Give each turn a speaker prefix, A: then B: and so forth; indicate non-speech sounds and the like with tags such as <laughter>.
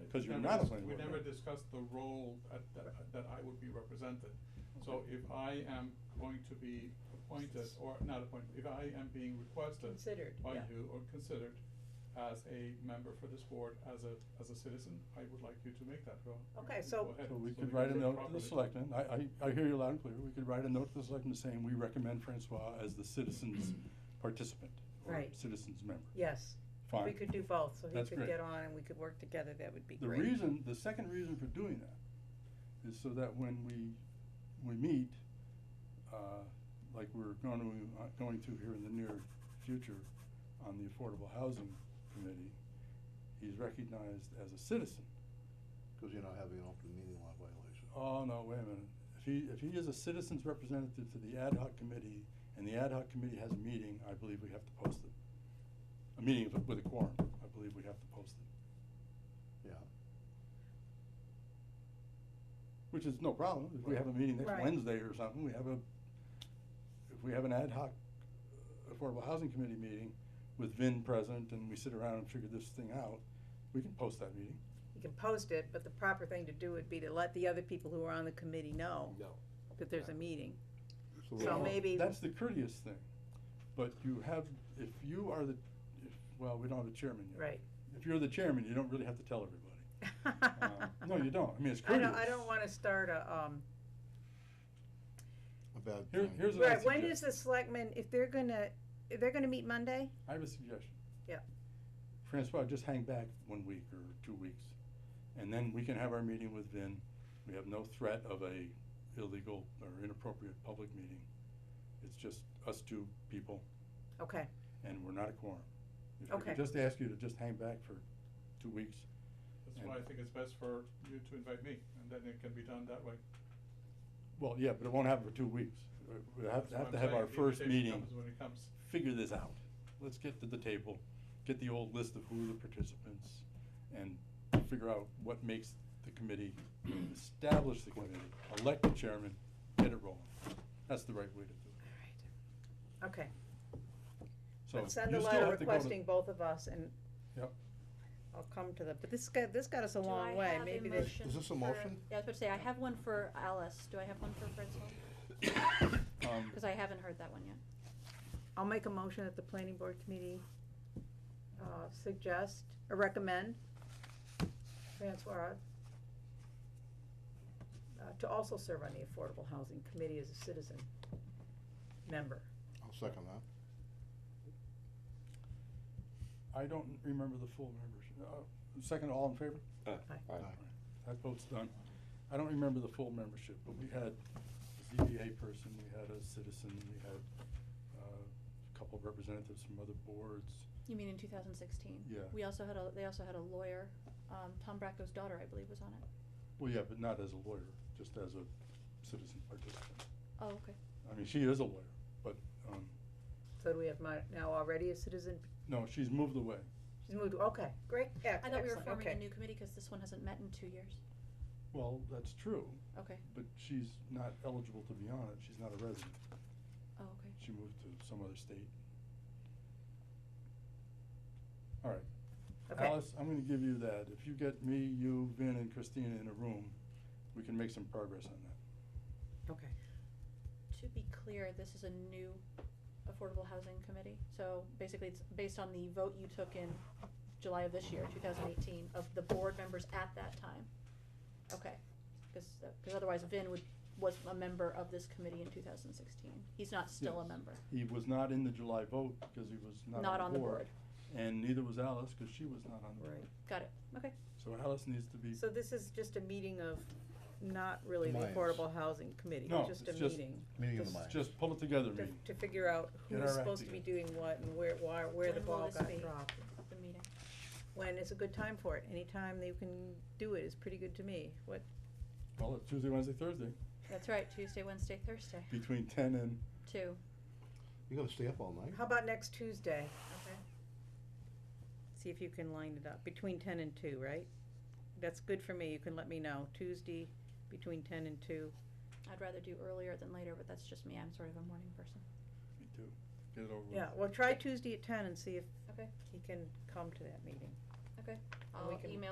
A: because you're
B: never
A: not a
B: dis-
A: planning board
B: We never
A: member.
B: discussed the role at, that, that I would be represented. So if I am going to be appointed, or not appointed, if I am being requested
C: Considered,
B: by
C: yeah.
B: you or considered as a member for this board, as a, as a citizen, I would like you to make that role.
C: Okay,
B: Go
C: so-
B: ahead,
A: So we
B: so
A: could
B: can
A: write a
B: do it
A: note to the
B: properly.
A: selectmen, I, I, I hear you loud and clear, we could write a note to the selectmen saying, we recommend Francois as the
B: <clears throat>
A: citizens participant. or
C: Right.
A: Citizens member,
C: Yes, we
A: fine.
C: could do both, so he
A: That's
C: could
A: great.
C: get on and we could work together, that would be
A: The
C: great.
A: reason, the second reason for doing that is so that when we, we meet, uh, like we're going to, uh, going to here in the near future on the Affordable Housing Committee, he's recognized as a citizen.
D: Because you're not having an open meeting law violation.
A: Oh, no, wait a minute. If he, if he is a citizen's representative to the ad hoc committee, and the ad hoc committee has a meeting, I believe we have to post it. A meeting with- with a quorum, I believe we have to post it,
D: Yeah,
A: which is no problem. If we have a meeting next
C: Right.
A: Wednesday or something, we have a, if we have an ad hoc uh, Affordable Housing Committee meeting with Vin present, and we sit around and figure this thing out, we can post that meeting.
C: You can post it, but the proper thing to do would be to let the other people who are on the committee know
E: No.
C: that there's a meeting.
D: so,
C: So
A: Well,
D: we're-
C: may- maybe-
A: That's the courteous thing, but you have, if you are the, if, well, we don't have a chairman yet.
C: Right.
A: if you're the chairman, you don't really have to tell
C: <laughs>
A: everybody. Um, No, you don't, I mean, it's
C: I
A: courteous.
C: don't, I don't wanna start a, um,
D: a bad
A: Here-
D: time.
A: here's what I
C: right, when
A: suggest.
C: is the selectmen, if they're gonna, if they're gonna meet Monday?
A: I have a suggestion.
C: Yeah.
A: Francois, just hang back one week or two weeks, and then we can have our meeting with Vin. We have no threat of a illegal or inappropriate public meeting. It's just us two people,
C: Okay,
A: and we're not a quorum. If I could
C: Okay.
A: Just ask you to just hang back for two weeks.
B: That's why I think it's best for you to invite me, and then it can be done that way.
A: Well, yeah, but it won't happen for two weeks. We have
B: That's
A: to
B: what
A: have
B: I'm
A: to have
B: saying,
A: our
B: the
A: first
B: invitation
A: meeting.
B: comes When it comes.
A: figure this out. Let's get to the table, get the old list of who are the participants, and figure out what makes the committee, establish the committee, elect the chairman, get it rolling. That's the right way to do
C: okay.
A: it.
C: But
A: So
C: Send a
A: you still
C: letter
A: have to go to-
C: requesting both of us and
A: Yep.
C: I'll come to the, but this got, this got us a long way, maybe
D: a
C: there's.
D: motion? Is this a
F: for-
D: motion?
F: Yeah, I was about to say, I have one for Alice, do I have one for Fritzl?
A: Um,
F: Cause I haven't heard that one yet.
C: I'll make a motion that the planning board committee, uh, suggest, or recommend Francois uh, to also serve on the Affordable Housing Committee as a citizen member.
D: I'll second that.
A: I don't remember the full membership. Uh, Second, all in favor?
D: Aye.
A: That vote's done. I don't remember the full membership, but we had a ZBA person, we had a citizen, we had uh, a couple of representatives from other boards.
F: You mean in two thousand sixteen?
A: Yeah.
F: We also had a, they also had a lawyer, um, Tom Bracco's daughter, I believe, was on it.
A: Well, yeah, but not as a lawyer, just as a citizen participant.
F: Oh, okay.
A: I mean, she is a lawyer, but, um,
C: So do we have my, now already a citizen,
A: no, she's moved away.
C: she's moved, okay, great, ex-
F: I thought we were
C: Uh, excellent,
F: forming a
C: okay.
F: new committee, cause this one hasn't met in two years.
A: Well, that's true,
F: Okay,
A: but she's not eligible to be on it. She's not a resident.
F: oh, okay.
A: She moved to some other state. All right.
C: Okay.
A: Alice, I'm gonna give you that. If you get me, you, Vin, and Christina in a room, we can make some progress on that.
C: Okay,
F: To be clear, this is a new affordable housing committee, so basically it's based on the vote you took in July of this year, two thousand eighteen, of the board members at that time. Okay, cause, uh, 'cause otherwise Vin would, was a member of this committee in two thousand sixteen, he's not still a
A: Yes.
F: member,
A: He was not in the July vote because he was
F: not on the board,
A: And neither was Alice because she was not on the board.
C: right.
F: got it, okay,
A: So Alice needs to be
C: So this is just a meeting of, not really the
D: Minds.
C: Affordable Housing Committee,
A: No,
C: just a
A: it's just-
C: meeting.
D: Meeting of
C: This
D: the
C: is
D: mind.
A: Just pull it together,
C: To,
A: meeting.
C: to figure out
A: Get
C: who's
A: our act
C: supposed to be
A: together.
C: doing what and where, why, where the
F: When will
C: ball
F: this
C: got
F: be?
C: dropped.
F: the meeting.
C: When is a good time for it? Any time that you can do it is pretty good to me. What,
A: Well, it's Tuesday, Wednesday, Thursday,
F: That's right, Tuesday, Wednesday,
A: <clears throat>
F: Thursday,
A: between ten and,
F: two,
D: You're gonna stay up all night?
C: how about next Tuesday?
F: okay.
C: See if you can line it up, between ten and two, right? That's good for me, you can let me know, Tuesday between ten and two.
F: I'd rather do earlier than later, but that's just me, I'm sort of a morning person.
A: me too. Get it over with.
C: Yeah, well, try Tuesday at ten and see if
F: Okay.
C: he can come to that meeting.
F: Okay,
C: And we
F: I'll
C: can-
F: email